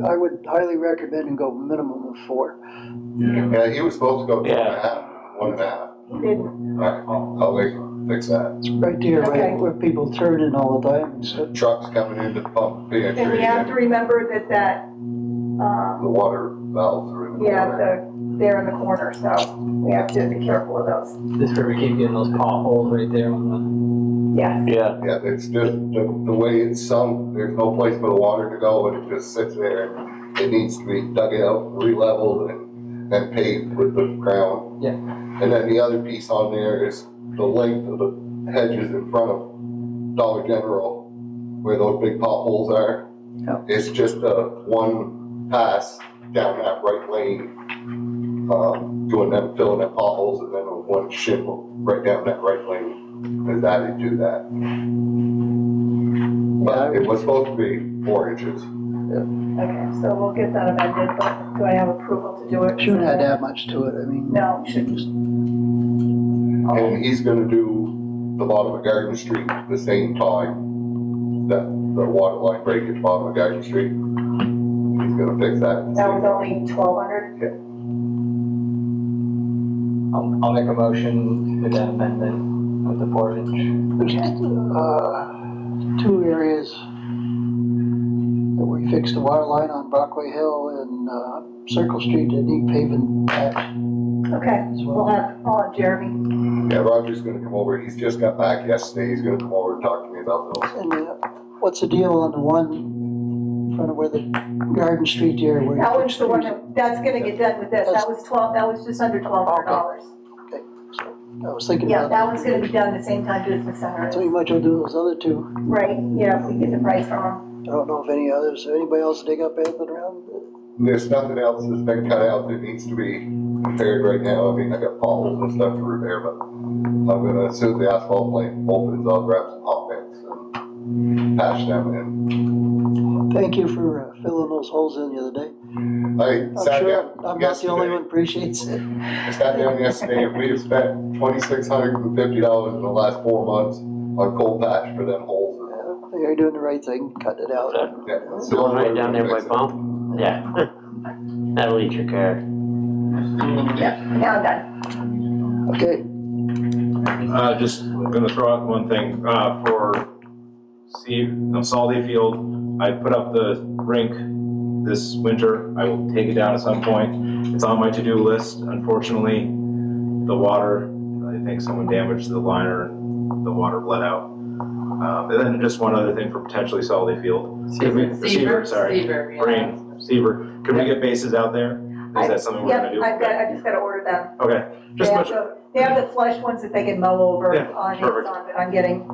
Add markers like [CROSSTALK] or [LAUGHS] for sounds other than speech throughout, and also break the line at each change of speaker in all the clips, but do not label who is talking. I would highly recommend and go minimum of four.
Yeah, he was supposed to go two and a
Yeah.
half, one and a half.
He didn't.
Alright, I'll, I'll wait, fix that.
It's right there,
Okay.
right where people turn in all the time, so.
Trucks coming in to pump the
And we have to
entry,
remember that that,
the
um,
water valves are in the
yeah,
water.
the, they're in the corner, so we have to be careful of those.
This is where we keep getting those potholes right there on
Yes.
Yeah,
Yeah, it's just the, the way it's sunk, there's no place for the water to go and it just sits there. It needs to be dug out, re-leveled and, and paved with the ground.
Yeah.
And then the other piece on there is the length of the hedges in front of Dollar General, where those big potholes are.
Yeah.
It's just a one pass down that right lane, um, doing them, filling them potholes and then a one shim right down that right lane is added to that. But it was supposed to be four inches.
Okay, so we'll get that amended, but do I have approval to do it?
Shouldn't add that much to it, I mean.
No, shouldn't.
And he's gonna do the bottom of Garden Street at the same time that the water line break at the bottom of Garden Street. He's gonna fix that. at the
That
same
was
time.
only twelve hundred?
the, I'll, I'll make a motion with that amendment with the four inch.
There's, uh, two areas that we fixed the water line on Brockway Hill and, uh, Circle Street that need paving patch
Okay,
as
we'll
well.
have, I'll have Jeremy.
Yeah, Roger's gonna come over, he's just got back yesterday, he's gonna come over and talk to me about those.
And, uh, what's the deal on the one in front of where the Garden Street there where you
That was
fixed
the one
things?
that, that's gonna get done with this. That was twelve, that was just under twelve hundred dollars.
I was thinking
Yeah,
about,
that one's gonna be done the same time business center
so you
is.
might as well do those other two.
Right, yeah, we get the price from
I don't know if any others, anybody else dig up anything around?
There's nothing else that's been cut out that needs to be repaired right now, I mean, I got potholes and stuff to repair, but I'm gonna, as soon as the asphalt plant opens, I'll grab some hot mix and patch them in.
Thank you for uh, filling those holes in the other day.
I
I'm
sat
sure
down
I'm not the only
yesterday,
one appreciates it. [LAUGHS]
I sat down yesterday and we have spent twenty-six hundred and fifty dollars in the last four months on coal patch for them holes.
You're doing the right thing, cut it out.
Yeah, it's the
going
only
right
way
down
we're
there
gonna
by
fix it.
bump, yeah. [LAUGHS] That'll eat your car.
them. Now I'm done.
Okay,
Uh, just gonna throw out one thing, uh, for Steve, on Salty Field, I put up the rink this winter, I will take it down at some point. It's on my to-do list, unfortunately, the water, I think someone damaged the liner, and the water bled out. Um, and then just one other thing for potentially Salty Field. Could we- Seaver, sorry,
Seaver, yeah.
brain, Seaver, could we get bases out there? Is that something we're gonna
Yep,
do?
I've got, I just gotta order them.
Okay,
They
just
have
much,
the- They have the flush ones that they can mow over
Yeah,
on
perfect.
Amazon that I'm getting.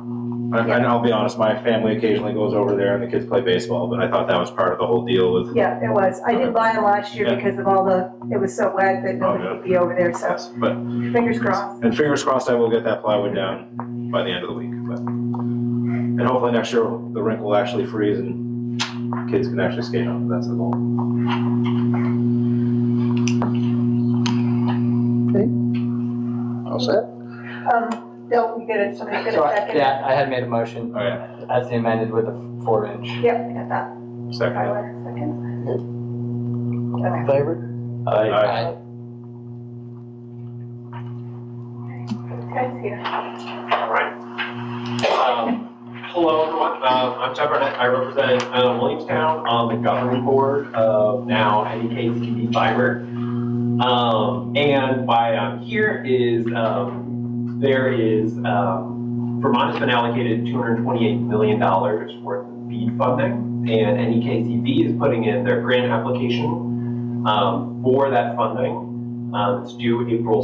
I- And I'll be honest, my family occasionally goes over there and the kids play baseball, but I thought that was part of the whole deal with.
Yeah, it was. I didn't buy them last year
Yeah.
because of all the, it was so wet that nobody
Oh, yeah. Mm-hmm.
could be over there, so
Yes, but,
fingers crossed.
and fingers crossed I will get that plywood down by the end of the week, but. And hopefully next year the rink will actually freeze and kids can actually skate on it, that's the goal.
all set?
Um, Bill, you get it, somebody get
So
a
I-
second?
Yeah, I had made a motion
Okay,
as the amended with the four inch.
Yep, I got that.
second.
Tyler, second.
All in favor?
I,
Aye.
I,
Guys here.
Um, Hello, everyone. Um, I'm Chuck Barnett. I represent uh, Williamstown on the governing board of now E NEKCD Fiber. Um, And why I'm here is um, there is, um, Vermont has been allocated $228 million worth of BEAD funding, and E NEKCD is putting in their grant application um, for that funding. Um, it's due April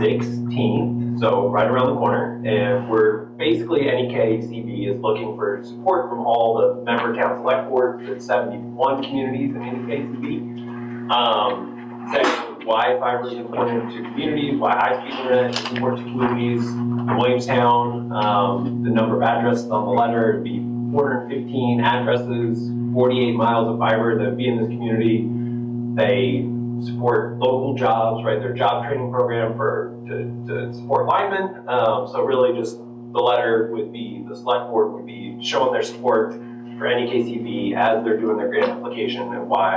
16th, so right around the corner. And we're basically, E NEKCB is looking for support from all the member town select boards, there's 71 communities in E NEKCB. Um, saying why fiber is important to communities, why high-speed internet is important to communities. In Williamstown, um, the number of addresses on the letter would be 415 addresses, 48 miles of fiber that would be in this community. They support local jobs, right, their job training program for, to, to support linemen. Um, so really just the letter would be, the select board would be showing their support for NEKCB as they're doing their grant application and why